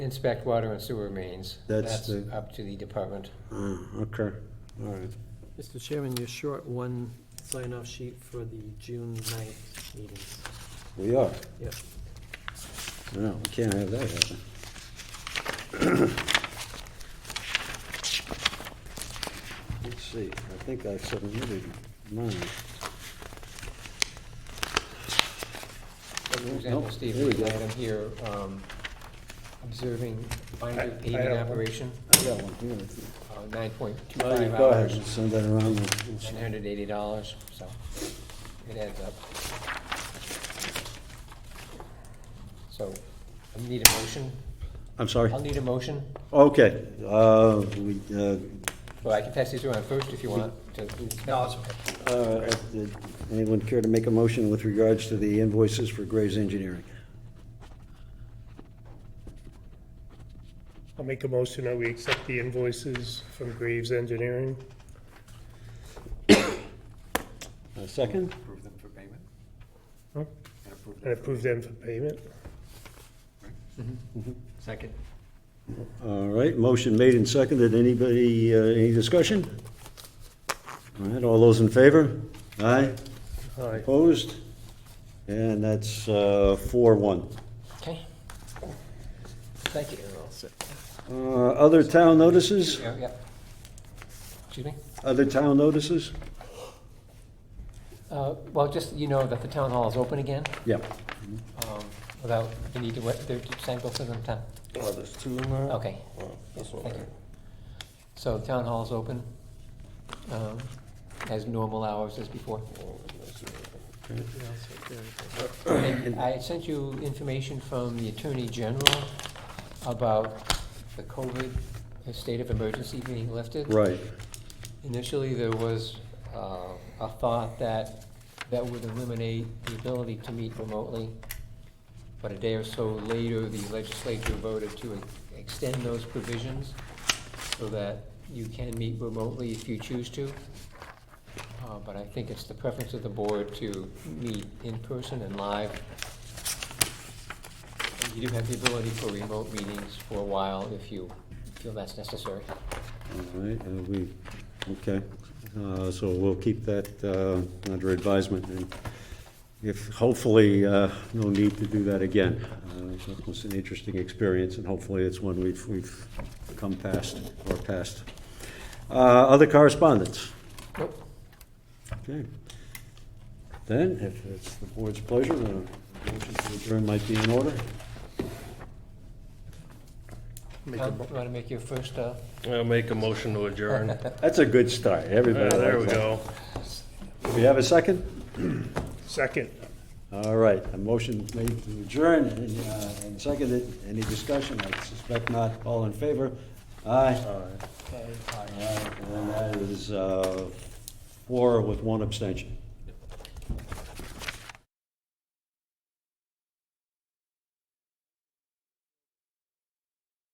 inspect water and sewer mains. That's That's the- up to the department. Ah, okay, all right. Mr. Chairman, you're short one sign-off sheet for the June 9th meetings. We are. Yep. No, we can't have that happen. Let's see, I think I submitted mine. For example, Nope, Steve, there we we go. had him here um, observing I- I binary have paving one. operation, uh, I got one here. nine point two Oh, you five Go ahead hours, and send that around. We'll- nine hundred eighty dollars, so it adds up. So, I need a motion. I'm sorry. I'll need a motion. Okay, uh, we, uh, Well, I can pass these around first if you want to. No, it's okay. uh, did anyone care to make a motion with regards to the invoices for Gray's Engineering? I'll make a motion that we accept the invoices from Graves Engineering. A second? Approve them for payment? Huh? And approve them And for- approve them for payment. Second. All right, motion made and seconded. Anybody, uh, any discussion? All right, all those in favor? Aye, Aye. opposed? And that's uh, four one. Okay. Thank you. Uh, Other town notices? Yeah, yeah. Excuse me? Other town notices? Uh, Well, just, you know, that the town hall is open again, Yeah. um, without, you need to, what, they're just saying both of them, Tom? Oh, there's two in there? Okay, Well, that's all thank you. right. So the town hall is open, um, has normal hours as before. What else is there? And I sent you information from the Attorney General about the COVID state of emergency being lifted. Right, Initially, there was uh, a thought that that would eliminate the ability to meet remotely, but a day or so later, the legislature voted to extend those provisions so that you can meet remotely if you choose to. Uh, But I think it's the preference of the board to meet in person and live. And You do have the ability for remote meetings for a while if you feel that's necessary. all right, uh, we, okay. Uh, So we'll keep that uh, under advisement. and If, hopefully, uh, no need to do that again. Uh, It was an interesting experience, and hopefully it's one we've, we've come past or past. Uh, Other correspondence? Nope. Okay. Then, if it's the board's pleasure, the motion to adjourn might be in order. Tom, you want to make your first uh, I'll make a motion to adjourn. That's a good start, Yeah, everybody. There we likes that. go. Do we have a second? Second. All right, a motion made to adjourn and uh, and seconded. Any discussion? I suspect not. All in favor? Aye. Aye. And that is uh, four with one abstention.